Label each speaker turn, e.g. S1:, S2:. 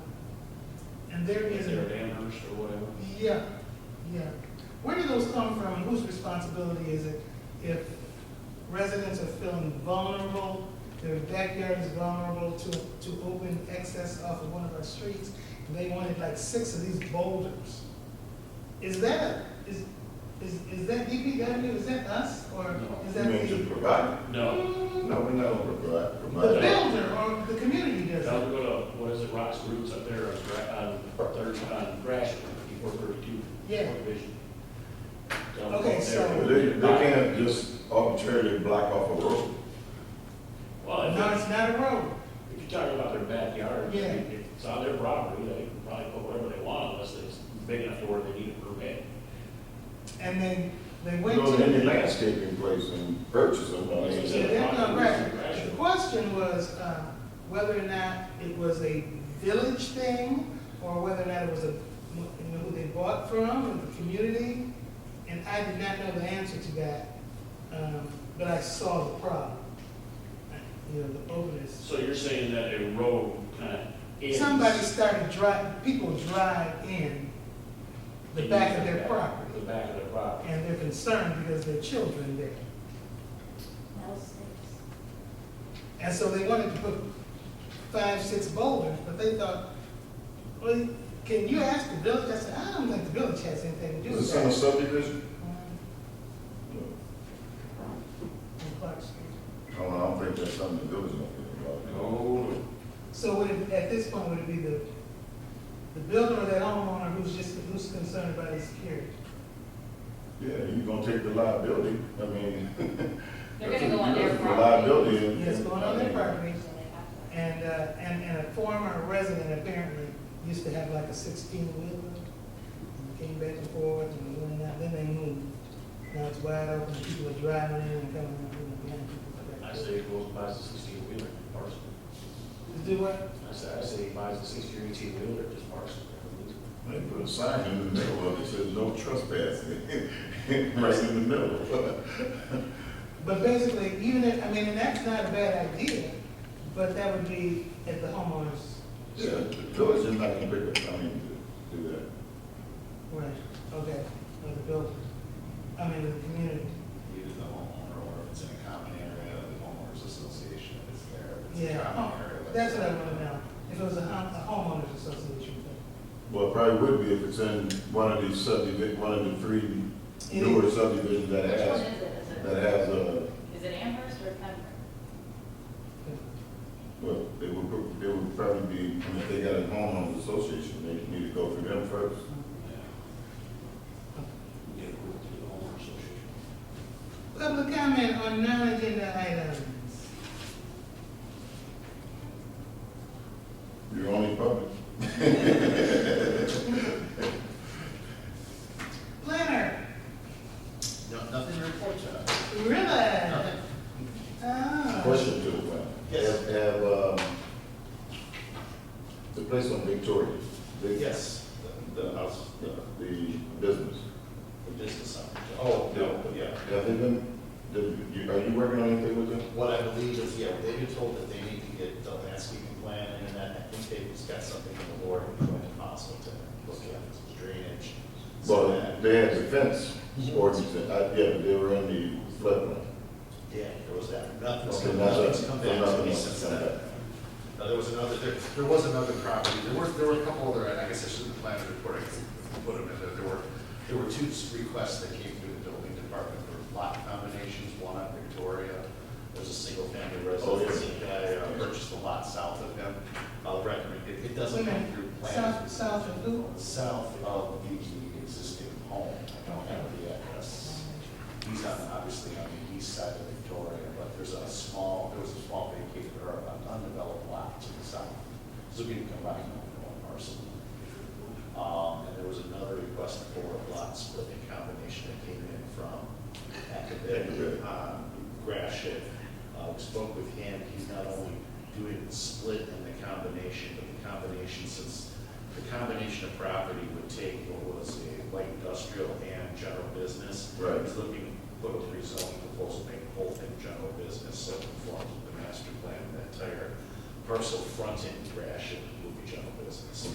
S1: and there
S2: Is
S1: is,
S2: there banners or whatever?
S1: yeah, yeah. Where do those come from? Whose responsibility is it if residents are feeling vulnerable, their backyard is vulnerable to, to open access off of one of our streets, and they wanted like six of these boulders? Is that, is, is, is that DPW, is that us, or
S2: No.
S1: is
S3: You
S1: that the?
S3: mean to provide?
S2: No,
S3: No, we're not gonna provide,
S1: The
S3: provide.
S1: builder or the community does
S2: Now
S1: it?
S2: we go to, what is it, Rock's Roots up there on, Gra- on thirty, on Gratiot, before thirty-two.
S1: Yeah.
S2: Division.
S1: Okay, so-
S3: They, they can't just arbitrarily block off a road.
S2: Well, if
S1: No,
S2: it's-
S1: it's not a road.
S2: if you're talking about their backyard, I
S1: Yeah.
S2: mean, if it's on their property, they can probably put whatever they want unless it's big enough to where they need a permit.
S1: And then they
S3: You
S1: went to.
S3: know, any landscaping place and purchase them, I mean,
S1: Yeah, that's not right. The question was, uh, whether or not it was a village thing, or whether or not it was a, you know, who they bought from, or the community, and I did not know the answer to that, um, but I saw the problem. You know, the openness.
S2: So you're saying that a road kind of ends?
S1: Somebody started drive, people drive in the back of their property,
S2: The back of their property.
S1: and they're concerned because their children there. And so they wanted to put five, six boulders, but they thought, well, can you ask the village? I said, I don't think the village has anything to do with
S3: is this in a
S1: that.
S3: subdivision?
S1: Um, on Clark Street.
S3: No, I don't think that's something the village gonna do.
S2: No,
S1: So would it, at this point, would it be the, the builder or that homeowner who's just, who's concerned about his security?
S3: Yeah, you gonna take the liability, I mean.
S4: They're gonna go on their
S3: The
S4: property.
S3: liability. and-
S1: Yes, going on their property. And, uh, and, and a former resident apparently used to have like a sixteen wheeler. and Came back and forth and went and out, then they moved. Now it's wide open, people are driving in and coming out, you know, behind people.
S2: I say he goes and buys a sixteen wheeler, parcel.
S1: Do what?
S2: I say, I say he buys a sixteen or eighteen wheeler, just parcel.
S3: They put a sign in the middle of it, says no trespassing, right in the middle.
S1: But basically, even if, I mean, and that's not a bad idea, but that would be at the homeowner's,
S3: Yeah, the village is not gonna pick up, I mean, to do that.
S1: right, okay, or the builder, I mean, the community.
S5: either the homeowner or if it's in a common area, the homeowners association is there. If it's a
S1: Yeah,
S5: common
S1: home-
S5: area, let
S1: that's what I want to know, if it was a hom- a homeowners association thing.
S3: Well, it probably would be if it's in one of these subdivision, one of the three
S1: It
S3: newer
S1: is.
S3: subdivisions that
S4: Which one is
S3: has,
S4: it? Is it-
S3: that has a,
S4: Is it Amherst or Pembroke?
S3: well, they would, pro- they would probably be, I mean, if they got a homeowners association, they need to go through them first.
S2: Get approved through the homeowner association.
S1: Public comment on non-agenda items.
S3: You're only public.
S1: Planner,
S5: No, nothing to report, John.
S1: really?
S5: Nothing.
S1: Oh,
S3: Question to the plan.
S5: Yes.
S3: Have, have, um, the place on Victoria. the-
S5: Yes, the,
S3: The
S5: the
S3: house, the, the business.
S5: the business owner. Oh, Yeah.
S3: Have they been, the- you- are you working on anything with them?
S5: What I believe is, yeah, they were told that they need to get the landscaping plan and that I think they've just got something in the board and going to council to look at some drainage. so
S3: Well,
S5: that-
S3: they had the fence ordinance, and I, yeah, but they were in the floodplain.
S5: Yeah, there was that. Nothing's
S3: Okay,
S5: come,
S3: that's-
S5: nothing's come back to
S3: nothing
S5: me
S3: else
S5: since
S3: has come
S5: then.
S3: back.
S5: Now, there was another, there, there was another property, there were, there were a couple other, I guess I shouldn't plan to report, I guess I put them in there, there were, there were two requests that came through the building department for lot combinations, one on Victoria, there's a single family
S3: Oh,
S5: residence, and I uh, purchased a lot south of them, I'll recommend, it, it doesn't come through
S1: South,
S5: plans.
S1: south of who?
S5: South of the existing home, I don't have the address. He's on, obviously on the east side of Victoria, but there's a small, there was a small vacated or an undeveloped lot to the south. So we can combine them into one parcel. Um, and there was another request for a lot splitting combination that came in from Academic, um, Grashit. Uh, we spoke with him, he's not only doing the split and the combination, but the combination since the combination of property would take what was a light industrial and general business.
S3: Right.
S5: He's looking, put a rezoning proposal, make the whole thing general business, so it conforms with the master plan, that entire parcel fronting, ration will be general business.